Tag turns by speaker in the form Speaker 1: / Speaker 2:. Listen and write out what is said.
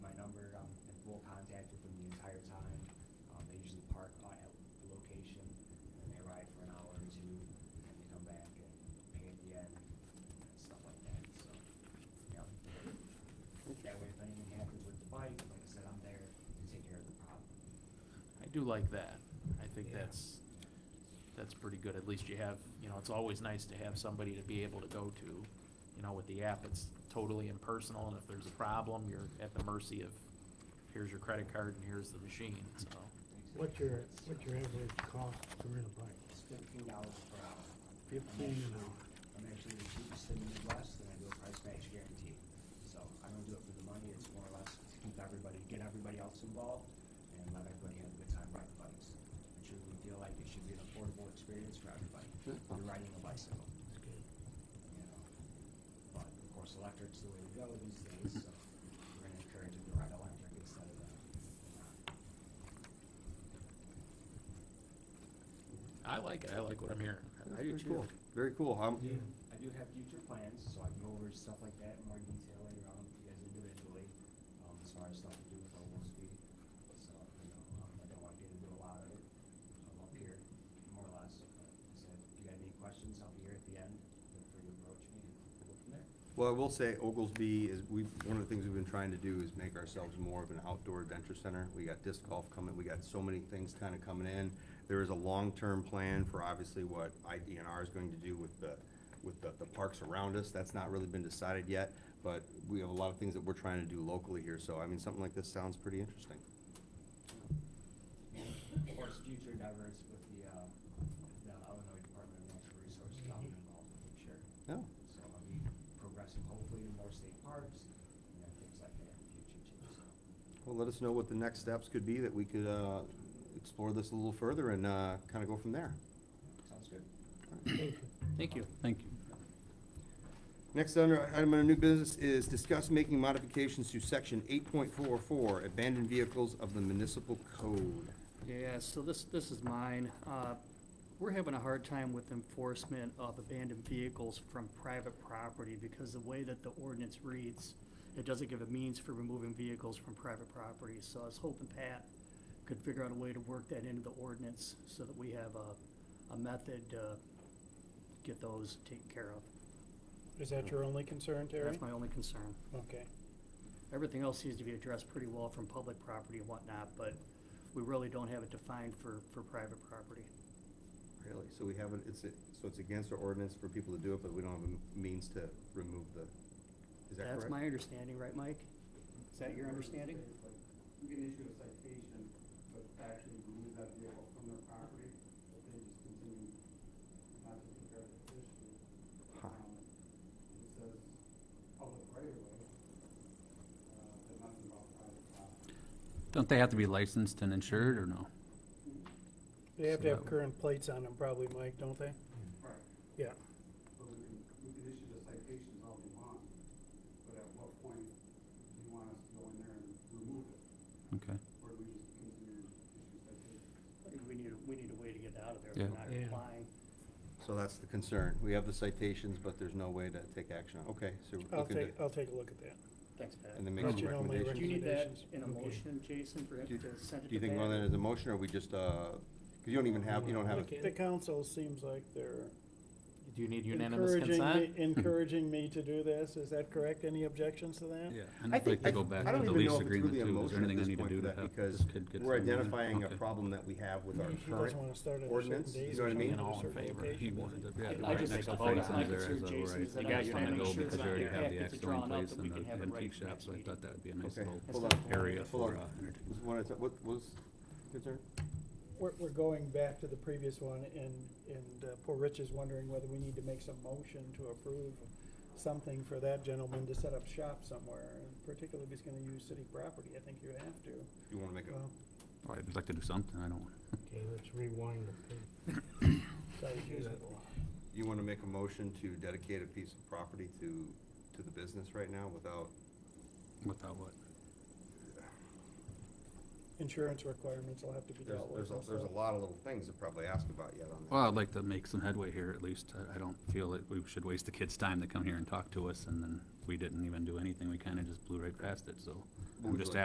Speaker 1: um, back and pay at the end and stuff like that, so, yeah. That way, if anything happens with the bike, like I said, I'm there to take care of the problem.
Speaker 2: I do like that. I think
Speaker 1: Yeah.
Speaker 2: that's, that's pretty good. At least you have, you know, it's always nice to have somebody to be able to go to. You know, with the app, it's totally impersonal, and if there's a problem, you're at the mercy of, here's your credit card and here's the machine, so.
Speaker 3: What's your, what's your average cost to rent a bike?
Speaker 1: It's fifteen dollars per hour. I'm
Speaker 3: Fifteen an
Speaker 1: actually-
Speaker 3: hour.
Speaker 1: I'm actually the cheapest in the Midwest, and I do a price match guarantee. So I don't do it for the money, it's more or less to keep everybody, get everybody else involved, and let everybody have a good time riding bikes. I truly feel like it should be an affordable experience for everybody, you're riding a bicycle,
Speaker 3: That's good.
Speaker 1: you know? But of course, electric's the way to go these days, so we're gonna encourage them to ride electric instead of uh
Speaker 2: I like it. I like what I'm hearing.
Speaker 4: Very cool. Very cool.
Speaker 3: Yeah.
Speaker 4: I'm,
Speaker 1: I do have future plans, so I can go over stuff like that in more detail later on with you guys individually, um, as far as stuff to do with local speed. So, you know, um, I don't wanna get into a lot of it, um, up here, more or less. But I said, if you got any questions, I'll be here at the end, feel free to approach me and we'll go from there.
Speaker 4: well, I will say Oglesby is, we, one of the things we've been trying to do is make ourselves more of an outdoor adventure center. We got disc golf coming, we got so many things kind of coming in. There is a long-term plan for obviously what IDNR is going to do with the, with the, the parks around us. That's not really been decided yet, but we have a lot of things that we're trying to do locally here. So I mean, something like this sounds pretty interesting.
Speaker 1: Of course, future endeavors with the, uh, the Illinois Department of Natural Resources, I'll be involved, I'm sure.
Speaker 4: Yeah.
Speaker 1: So I'll be progressing hopefully to more state parks and then things like that in the future too, so.
Speaker 4: Well, let us know what the next steps could be that we could, uh, explore this a little further and, uh, kind of go from there.
Speaker 1: Sounds good.
Speaker 2: Thank you.
Speaker 5: Thank you.
Speaker 4: Next under, item under new business is discuss making modifications to section 8.44, abandoned vehicles of the municipal code.
Speaker 5: Yeah, so this, this is mine. Uh, We're having a hard time with enforcement of abandoned vehicles from private property because the way that the ordinance reads, it doesn't give a means for removing vehicles from private property. So I was hoping Pat could figure out a way to work that into the ordinance so that we have a, a method to get those taken care of.
Speaker 3: Is that your only concern, Terry?
Speaker 5: That's my only concern.
Speaker 3: Okay.
Speaker 5: Everything else seems to be addressed pretty well from public property and whatnot, but we really don't have it defined for, for private property.
Speaker 4: Really? So we haven't, it's, a- so it's against our ordinance for people to do it, but we don't have a means to remove the, is that correct?
Speaker 5: That's my understanding, right, Mike? Is that your understanding?
Speaker 6: You can issue a citation, but actually remove that vehicle from their property, but they just continue not to take care of the issue.
Speaker 4: Huh.
Speaker 6: Um, It says public right of way, uh, but nothing about private property.
Speaker 5: Don't they have to be licensed and insured, or no?
Speaker 3: They have to
Speaker 5: So-
Speaker 3: have current plates on them probably, Mike, don't they?
Speaker 6: Right.
Speaker 3: Yeah.
Speaker 6: But we can, we can issue the citations all we want, but at what point do you want us to go in there and remove it?
Speaker 7: Okay.
Speaker 6: Or do we just continue to issue citations?
Speaker 5: I think we need, we need a way to get out of there if we're
Speaker 7: Yeah.
Speaker 5: not
Speaker 3: Yeah.
Speaker 5: complying.
Speaker 4: So that's the concern. We have the citations, but there's no way to take action on. Okay, so we
Speaker 3: I'll
Speaker 4: can,
Speaker 3: take,
Speaker 4: do-
Speaker 3: I'll take a look at that.
Speaker 5: Thanks, Pat.
Speaker 4: and then
Speaker 5: Do
Speaker 4: make
Speaker 3: That's
Speaker 4: some
Speaker 3: your only
Speaker 4: recommendations.
Speaker 5: you need that
Speaker 3: Recommendations.
Speaker 5: in a
Speaker 3: Okay.
Speaker 5: motion, Jason, for
Speaker 4: Do
Speaker 5: him
Speaker 4: you-
Speaker 5: to send it to Pat?
Speaker 4: Do you think one of that is a motion, or we just, uh, because you don't even have, you don't have a.
Speaker 3: The council seems like they're
Speaker 2: Do you need unanimous
Speaker 3: encouraging, me-
Speaker 2: consent?
Speaker 3: encouraging me to do this. Is that correct? Any objections to that?
Speaker 7: Yeah, and I'd like
Speaker 4: I-
Speaker 7: to go back
Speaker 4: I
Speaker 7: to
Speaker 4: don't
Speaker 7: the
Speaker 4: even know
Speaker 7: lease
Speaker 4: if it's
Speaker 7: agreement
Speaker 4: really a
Speaker 7: too. Is there
Speaker 4: motion at
Speaker 7: anything I
Speaker 4: this
Speaker 7: need to
Speaker 4: point
Speaker 7: do
Speaker 4: for
Speaker 7: to
Speaker 4: that
Speaker 7: have
Speaker 4: because
Speaker 7: this kid get?
Speaker 4: we're
Speaker 7: some moving?
Speaker 4: identifying a
Speaker 7: Okay.
Speaker 4: problem that we have with our
Speaker 3: He doesn't want to
Speaker 4: current.
Speaker 3: start at a certain
Speaker 4: ordinance,
Speaker 3: date.
Speaker 4: you know what I mean?
Speaker 3: or
Speaker 2: And all in
Speaker 3: certain
Speaker 2: favor.
Speaker 3: location.
Speaker 7: He wanted to, yeah,
Speaker 5: I-
Speaker 7: the
Speaker 5: I
Speaker 7: right
Speaker 5: just
Speaker 7: next to
Speaker 5: like to vote
Speaker 7: things
Speaker 5: on it.
Speaker 7: in there
Speaker 5: I
Speaker 7: as
Speaker 5: concerned
Speaker 7: a
Speaker 5: Jason's
Speaker 7: right.
Speaker 5: that
Speaker 7: The
Speaker 2: I
Speaker 7: guys
Speaker 2: just
Speaker 7: want
Speaker 2: wanna
Speaker 7: to go
Speaker 2: make sure
Speaker 7: because they
Speaker 2: that
Speaker 7: already
Speaker 2: the
Speaker 7: have the
Speaker 5: packets are
Speaker 7: axe going
Speaker 5: drawn up
Speaker 7: place
Speaker 5: that we
Speaker 7: and
Speaker 5: can
Speaker 7: the
Speaker 5: have it ready
Speaker 7: antique shops.
Speaker 5: for next
Speaker 7: I thought
Speaker 5: meeting.
Speaker 7: that'd be a nice
Speaker 4: Okay,
Speaker 7: little
Speaker 5: hold on.
Speaker 7: area
Speaker 4: Hold
Speaker 7: for
Speaker 4: on.
Speaker 7: uh, entertainment.
Speaker 4: Was one at a- What was concern?
Speaker 3: We're, we're going back to the previous one, and, and uh, poor Rich is wondering whether we need to make some motion to approve something for that gentleman to set up shop somewhere, and particularly if he's gonna use city property, I think you would have to.
Speaker 4: You want to make a,
Speaker 3: Well,
Speaker 7: Well, I'd like to do something, I don't,
Speaker 8: Okay, let's rewind the tape.
Speaker 3: so you use it a lot.
Speaker 4: you want to make a motion to dedicate a piece of property to, to the business right now without,
Speaker 7: without what?
Speaker 3: Insurance requirements will have to be
Speaker 4: there's,
Speaker 3: dealt with.
Speaker 4: there's, a-
Speaker 3: and
Speaker 4: there's a
Speaker 3: stuff.
Speaker 4: lot of little things to probably ask about yet on that.
Speaker 7: Well, I'd like to make some headway here at least. I I don't feel that we should waste the kids' time to come here and talk to us and then we didn't even do anything. We kind of just blew right past it, so
Speaker 4: What would
Speaker 7: I'm
Speaker 4: you
Speaker 7: just
Speaker 4: like?